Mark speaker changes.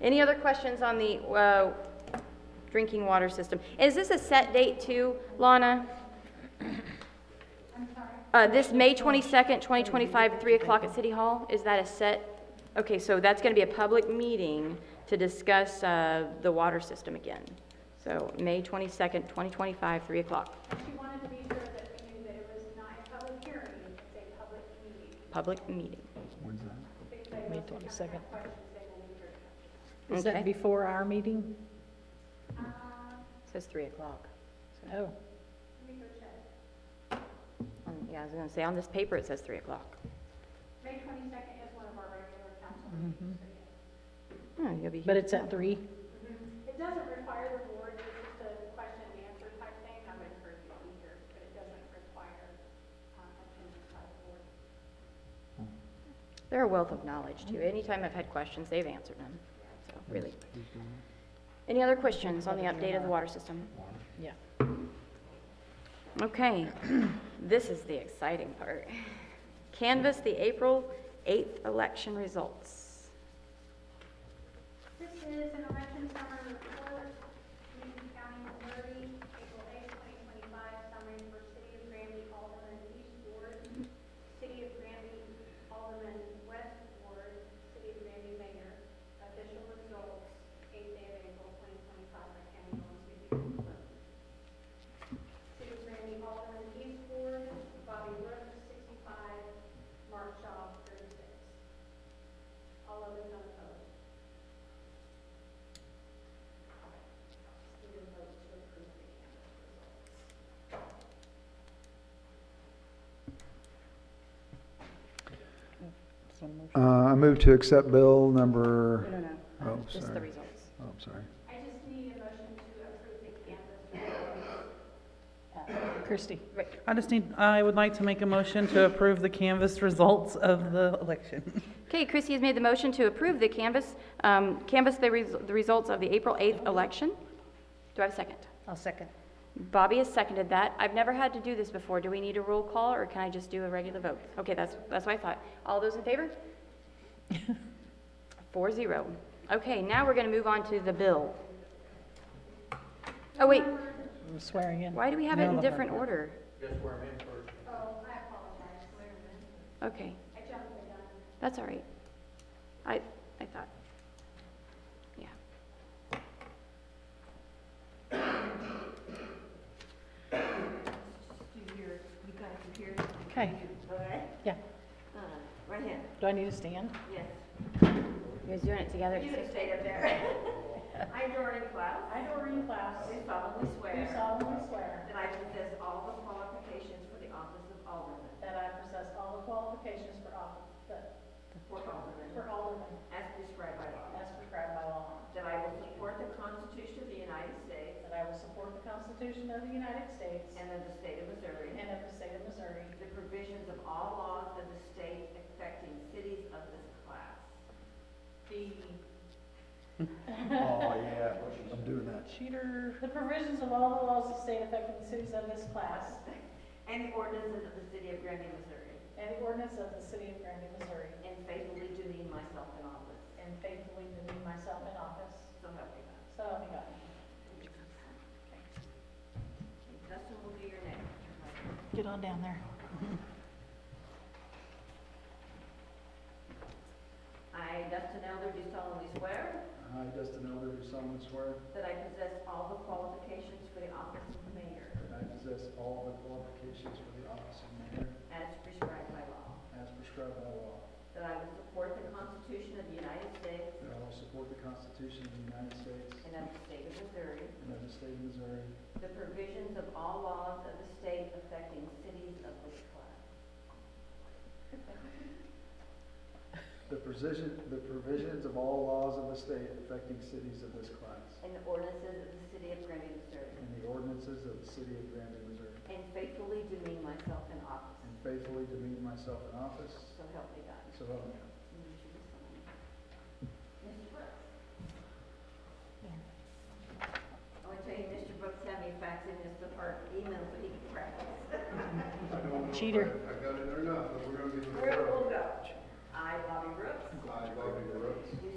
Speaker 1: Any other questions on the uh, drinking water system? Is this a set date too, Lana? Uh, This May 22nd, 2025, 3 o'clock at City Hall, is that a set? Okay, so that's going to be a public meeting to discuss uh, the water system again. So May 22nd, 2025, 3 o'clock,
Speaker 2: She wanted to be sure that we knew that it was not a public hearing, it's a public meeting.
Speaker 1: public meeting.
Speaker 3: May 22nd. Is
Speaker 1: Okay,
Speaker 3: that before our meeting?
Speaker 4: Says 3 o'clock.
Speaker 3: Oh,
Speaker 1: Um, yeah, I was going to say, on this paper, it says 3 o'clock.
Speaker 2: May twenty-second is one of our regular council
Speaker 1: Oh, you'll be here.
Speaker 3: but it's at 3?
Speaker 2: meetings. It doesn't require the board, it's just a question and answer type thing, I would encourage you to be here, but it doesn't require, um, attendance by the board.
Speaker 1: They're a wealth of knowledge, too. Anytime I've had questions, they've answered them, so, really. Any other questions on the update of the water system?
Speaker 3: Yeah.
Speaker 1: Okay, this is the exciting part. Canvas the April 8th election results.
Speaker 2: This is an election summary report, Newton County, Missouri, April 8, 2025, summary for City of Granby Alderman East Ward, City of Granby Alderman West Ward, City of Granby Mayor, official results, 8th day of April 2025, by county Owen City. City of Granby Alderman East Ward, Bobby Brooks, 65, Mark Shaw, 36. All others unopposed.
Speaker 5: Uh, I move to accept bill number,
Speaker 1: No, no,
Speaker 5: oh,
Speaker 1: just the
Speaker 5: sorry.
Speaker 1: results.
Speaker 5: Oh, I'm sorry.
Speaker 2: I just need a motion to approve the canvas.
Speaker 3: Christie,
Speaker 6: I just need, I would like to make a motion to approve the canvas results of the election.
Speaker 1: Okay, Chrissy has made the motion to approve the canvas, um, canvas the res- the results of the April 8th election. Do I have a second?
Speaker 3: I'll second.
Speaker 1: Bobby has seconded that. I've never had to do this before. Do we need a roll call, or can I just do a regular vote? Okay, that's, that's what I thought. All those in favor? Four zero. Okay, now we're going to move on to the bill. Oh, wait.
Speaker 3: I'm swearing in.
Speaker 1: Why do we have it in different order?
Speaker 2: Oh, I apologize, Mayor.
Speaker 1: Okay,
Speaker 2: I jumped the gun.
Speaker 1: that's all right. I, I thought, yeah.
Speaker 3: Okay,
Speaker 7: Okay,
Speaker 3: yeah.
Speaker 7: uh, right hand,
Speaker 3: Do I need to stand?
Speaker 7: yes.
Speaker 1: You guys doing it together?
Speaker 7: You just stayed up there. I, Doreen Cloud. I, Doreen Cloud. Do solemnly swear. Do solemnly swear. That I possess all the qualifications for the office of alderman. That I possess all the qualifications for office, For alderman. For alderman. As prescribed by law. As prescribed by law. That I will support the Constitution of the United States. That I will support the Constitution of the United States. And of the state of Missouri. And of the state of Missouri. The provisions of all laws of the state affecting cities of this class. The
Speaker 5: Oh, yeah, I'm doing that.
Speaker 3: Cheater.
Speaker 7: The provisions of all the laws of the state affecting cities of this class. And the ordinances of the city of Granby, Missouri. And the ordinance of the city of Granby, Missouri. And faithfully do demean myself in office. And faithfully demean myself in office. So help me God. So help me God. And Dustin will be your next.
Speaker 3: Get on down there.
Speaker 7: I, Dustin Elder, do solemnly swear
Speaker 5: I, Dustin Elder, do solemnly swear
Speaker 7: that I possess all the qualifications for the office of mayor
Speaker 5: that I possess all the qualifications for the office of mayor
Speaker 7: as prescribed by law,
Speaker 5: as prescribed by law,
Speaker 7: that I will support the Constitution of the United States
Speaker 5: that I will support the Constitution of the United States
Speaker 7: and of the state of Missouri,
Speaker 5: and of the state of Missouri,
Speaker 7: The provisions of all laws of the state affecting cities of this class.
Speaker 5: the precision, the provisions of all laws of the state affecting cities of this class,
Speaker 7: And the ordinances of the city of Granby, Missouri.
Speaker 5: and the ordinances of the city of Granby, Missouri,
Speaker 7: And faithfully demean myself in office.
Speaker 5: and faithfully demean myself in office,
Speaker 7: So help me God.
Speaker 5: so help me God.
Speaker 7: Mr. Brooks? I want to tell you, Mr. Brooks had me faxing Mr. Park email so he could practice.
Speaker 3: Cheater.